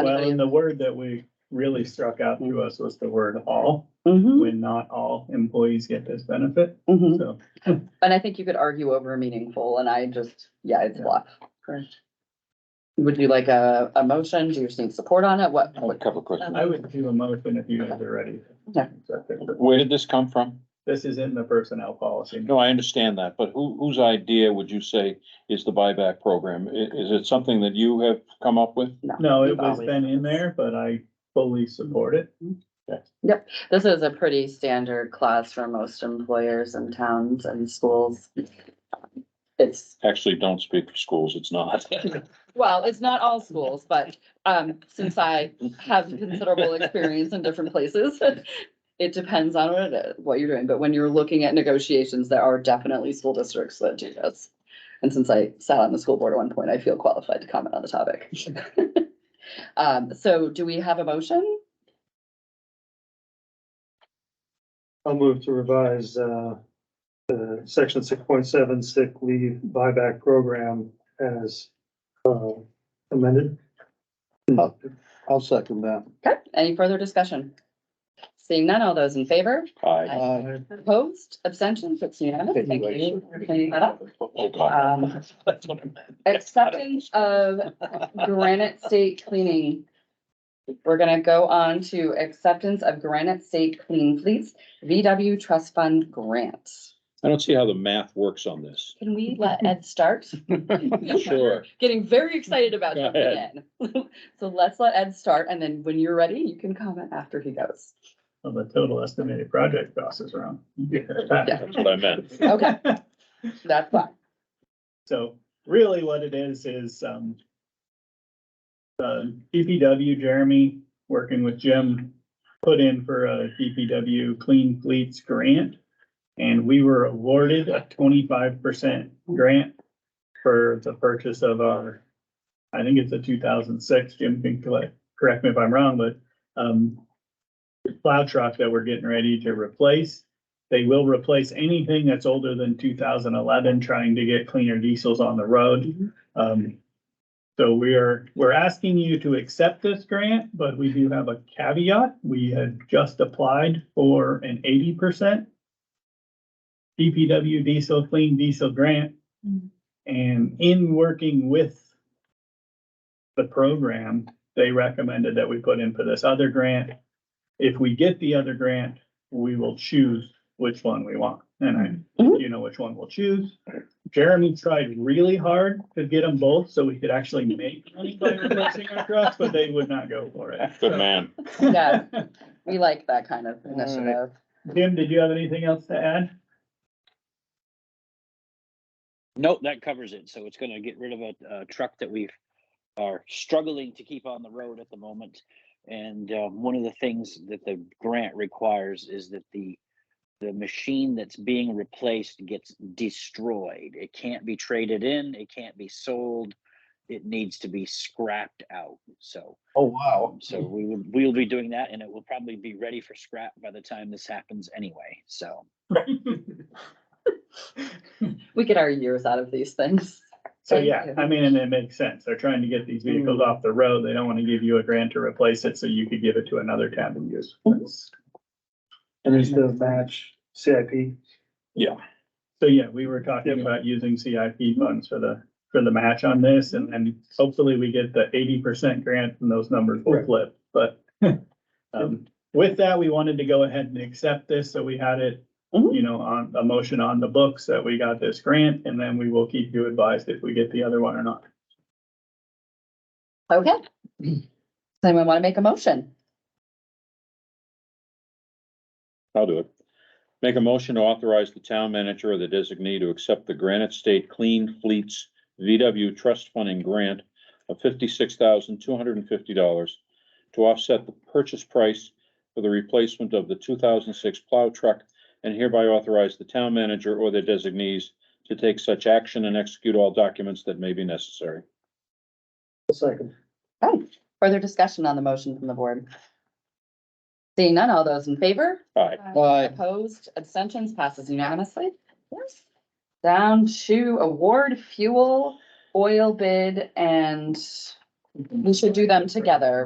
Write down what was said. Well, and the word that we really struck out to us was the word all, Mm. Mm-hmm, when not all employees get this benefit, mm-hmm, so. And I think you could argue over meaningful and I just, yeah, it's a lot. correct. Would you like a, a motion? Do you just need support on it? What? I have a couple of questions. I would do a motion if you guys are ready. Okay. Where did this come from? This is in the personnel policy. No, I understand that, but who, whose idea would you say is the buyback program? I- is it something that you have come up with? No, it was been in there, but I fully support it. This is a pretty standard clause for most employers and towns and schools. It's, Actually, don't speak for schools, it's not. well, it's not all schools, but, um, since I have considerable experience in different places, it depends on what, it is- what you're doing. But when you're looking at negotiations, there are definitely school districts that do this. And since I sat on the school board at one point, I feel qualified to comment on the topic. Um, so do we have a motion? I'll move to revise, uh, the section six point seven sick leave buyback program as, uh, amended. Oh, I'll second that. Okay, any further discussion? Seeing none, all those in favor? Aye. Aye. Opposed, abstentions, it's unanimous, uh, thank you for cleaning that up. Oh, God. Um, Acceptance of Granite State Cleaning. We're gonna go on to acceptance of Granite State Clean Fleets VW Trust Fund Grant. I don't see how the math works on this. Can we let Ed start? Sure. Getting very excited about Go jumping in. So let's let Ed start, and then when you're ready, you can comment after he goes. Well, the total estimated project cost is around. That's what I meant. Okay. That's fine. So really what it is, is, um, uh, the DPW, Jeremy, working with Jim, put in for a DPW Clean Fleets grant. And we were awarded a twenty-five percent grant for the purchase of our, I think it's a two thousand six, Jim can collect, correct me if I'm wrong, but, um, plow truck that we're getting ready to replace. They will replace anything that's older than two thousand eleven, trying to get cleaner diesels on the road. Um, so we are, we're asking you to accept this grant, but we do have a caveat. We had just applied for an eighty percent DPW diesel, clean diesel grant. Mhm. And in working with the program, they recommended that we put in for this other grant. If we get the other grant, we will choose which one we want. And I, Mhm. you know which one we'll choose. Jeremy tried really hard to get them both so we could actually make money by replacing our trucks, but they would not go for it. Good man. Yeah, we like that kind of initiative. Jim, did you have anything else to add? Nope, that covers it. So it's gonna get rid of a, uh truck that we are struggling to keep on the road at the moment. And, um, one of the things that the grant requires is that the, the machine that's being replaced gets destroyed. It can't be traded in, it can't be sold. It needs to be scrapped out, so, um, Oh, wow. so we will, we'll be doing that and it will probably be ready for scrap by the time this happens anyway, so. We get our years out of these things. So Thank yeah, you. I mean, and it makes sense. They're trying to get these vehicles off the road. They don't want to give you a grant to replace it, so you could give it to another town to use. That's- And is the match CIP? So yeah, we were talking about using CIP funds for the, for the match on this and, and hopefully we get the eighty percent grant and those numbers will Right. flip, but. Um, with that, we wanted to go ahead and accept this, so we had it, Mhm. you know, on, a motion on the books that we got this grant and then we will keep you advised if we get the other one or not. Okay. Does anyone want to make a motion? I'll do it. Make a motion to authorize the town manager or the designee to accept the Granite State Clean Fleets VW Trust Funding Grant of fifty-six thousand two hundred and fifty dollars to offset the purchase price for the replacement of the two thousand six plow truck and hereby authorize the town manager or their designees to take such action and execute all documents that may be necessary. Second. Oh, further discussion on the motion from the board? Seeing none, all those in favor? Aye. Aye. Opposed, abstentions, passes unanimously. Yes. Down to award fuel, oil bid, and we should do them together,